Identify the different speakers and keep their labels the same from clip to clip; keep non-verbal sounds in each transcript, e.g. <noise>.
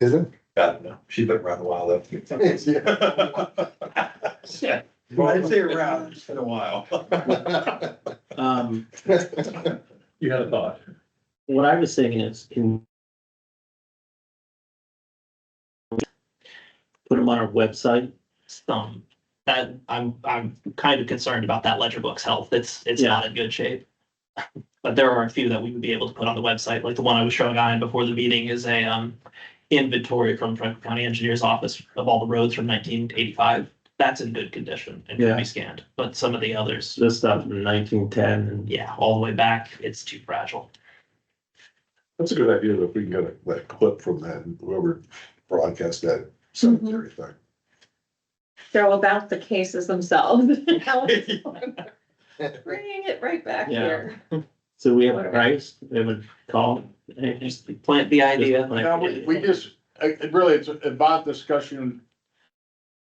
Speaker 1: Is it?
Speaker 2: God, no, she's been around a while
Speaker 3: <laughs>
Speaker 2: though. Yeah. I'd
Speaker 1: <laughs>
Speaker 2: say around, it's been a while.
Speaker 4: Um,
Speaker 2: You had a thought.
Speaker 4: what I was saying is in. Put them on our website.
Speaker 5: Um, that, I'm, I'm kind of concerned about that ledger book's health. It's, it's
Speaker 4: Yeah.
Speaker 5: not in good shape. <laughs> But there are a few that we would be able to put on the website, like the one I was showing Ian before the meeting is a, um, inventory from Franklin County Engineers Office of all the roads from nineteen eighty-five. That's in good condition and
Speaker 4: Yeah.
Speaker 5: can be scanned, but some of the others,
Speaker 4: This stuff in nineteen ten and
Speaker 5: yeah, all the way back, it's too fragile.
Speaker 1: That's a good idea, though, if we can get a- that clip from that, whoever broadcast that cemetery thing.
Speaker 6: They're about the cases themselves. <laughs> Bringing it right back
Speaker 4: Yeah.
Speaker 6: here.
Speaker 4: so we have a price, they would call. and just-
Speaker 5: Just plant the idea.
Speaker 4: Just plant
Speaker 3: Now, we, we just, uh, uh, really, it's about discussion.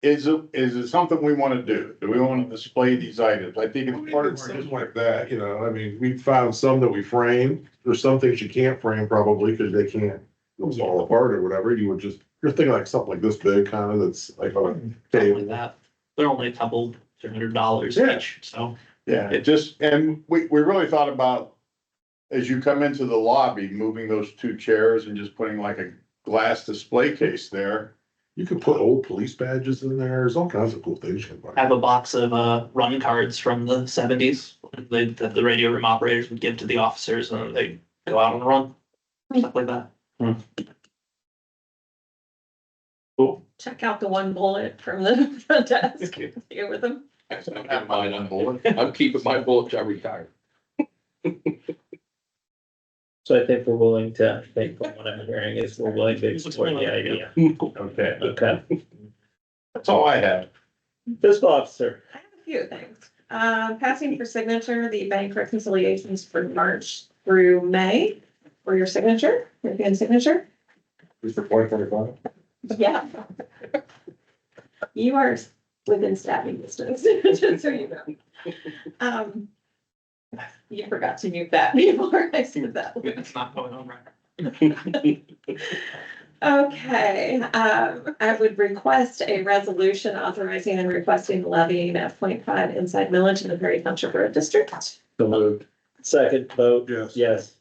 Speaker 3: Is it, is it something we wanna do? Do we wanna display these items? I think it's part of.
Speaker 1: Something like that, you know, I mean, we found some that we framed, there's some things you can't frame probably, because they can't, it was all apart or whatever, you would just, you're thinking like something like this big, kind of, that's like oh, on a
Speaker 5: Something like
Speaker 1: table.
Speaker 5: that. They're only a couple, three hundred dollars
Speaker 3: Yeah.
Speaker 5: each, so.
Speaker 3: Yeah, it just, and we, we really thought about. As you come into the lobby, moving those two chairs and just putting like a glass display case there.
Speaker 1: You could put old police badges in there, there's all kinds of cool things you can
Speaker 5: I have
Speaker 1: buy.
Speaker 5: a box of uh, run cards from the seventies that that the radio room operators would give to the officers and they go out on the run. Stuff like that.
Speaker 6: Check out the one bullet from the <laughs> front desk. Here with them.
Speaker 7: I'm keeping mine on bullet. I'm keeping my bullet, I retired.
Speaker 4: So I think we're willing to, I think from what I'm hearing is we're willing to explore the idea.
Speaker 3: Okay.
Speaker 4: Okay,
Speaker 3: That's all I have.
Speaker 4: fiscal officer,
Speaker 6: I have a few things. Uh, passing for signature, the bank reconciliations for March through May for your signature, your hand signature.
Speaker 1: Mr. Point thirty-five?
Speaker 6: Yeah. You are within stabbing distance, <laughs> just so you know. Um, you forgot to mute that <laughs> before I said that.
Speaker 5: It's not going on right.
Speaker 6: Okay, um, I would request a resolution authorizing and requesting levying a 0.5 inside millage in the Perry Township Road District.
Speaker 1: The move.
Speaker 4: second vote,
Speaker 1: Yes.
Speaker 4: yes.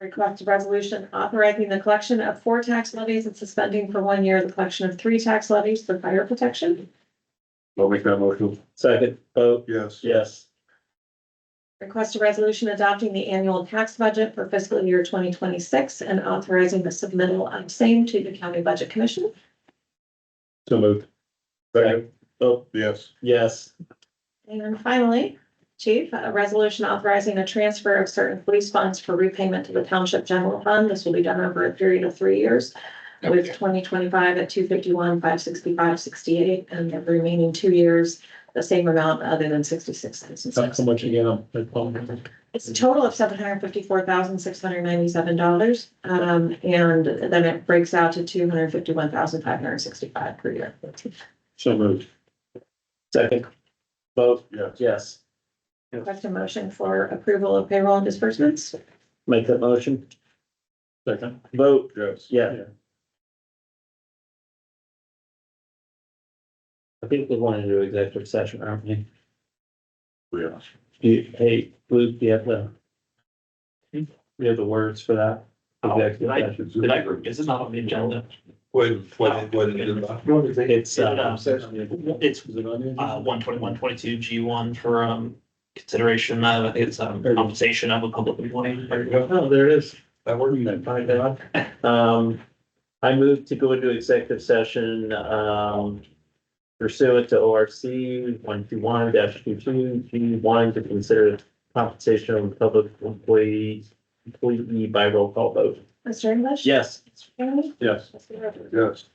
Speaker 6: Request a resolution authorizing the collection of four tax levies and suspending for one year the collection of three tax levies for fire protection.
Speaker 1: I'll make that motion.
Speaker 4: Second vote,
Speaker 1: Yes.
Speaker 4: yes.
Speaker 6: Request a resolution adopting the annual tax budget for fiscal year twenty twenty-six and authorizing the submittal of same to the county budget commission.
Speaker 1: So moved. Second,
Speaker 4: Vote,
Speaker 1: yes.
Speaker 4: yes.
Speaker 6: And finally, chief, a resolution authorizing a transfer of certain police funds for repayment to the township general fund. This will be done over a period of three years. With twenty twenty-five at two fifty-one, five sixty-five, sixty-eight, and the remaining two years, the same amount other than sixty-six cents and six.
Speaker 4: much again,
Speaker 6: It's a total of seven hundred fifty-four thousand, six hundred ninety-seven dollars. Um, and then it breaks out to two hundred fifty-one thousand, five hundred sixty-five per year.
Speaker 4: So moved. Second. Vote,
Speaker 1: Yes.
Speaker 4: yes.
Speaker 6: Request a motion for approval of payroll and disbursements.
Speaker 4: Make that motion. Second. Vote,
Speaker 1: Yes.
Speaker 4: yeah. I think we want to do executive session, aren't we?
Speaker 1: We
Speaker 4: Do you- Hey, Luke, do you have the? Do you have the words for that?
Speaker 5: Oh,
Speaker 4: Executive
Speaker 5: I-
Speaker 4: session.
Speaker 5: Did I, is it not on the agenda?
Speaker 2: When, when, when, it-
Speaker 4: It's, uh,
Speaker 5: It's uh, one twenty-one, twenty-two, G one for, um, consideration of, I think it's, um, compensation of a public employee.
Speaker 2: there you go.
Speaker 4: oh, there it is.
Speaker 2: That worked.
Speaker 4: Find out. Um, I move to go into executive session, um, pursuant to O R C one two one dash two two, G one to consider compensation of public employee, employee by roll call vote.
Speaker 6: Mr. English?
Speaker 4: Yes.
Speaker 6: Mr. Kennedy?
Speaker 1: Yes.
Speaker 6: Mr. Rogers?
Speaker 1: Yes.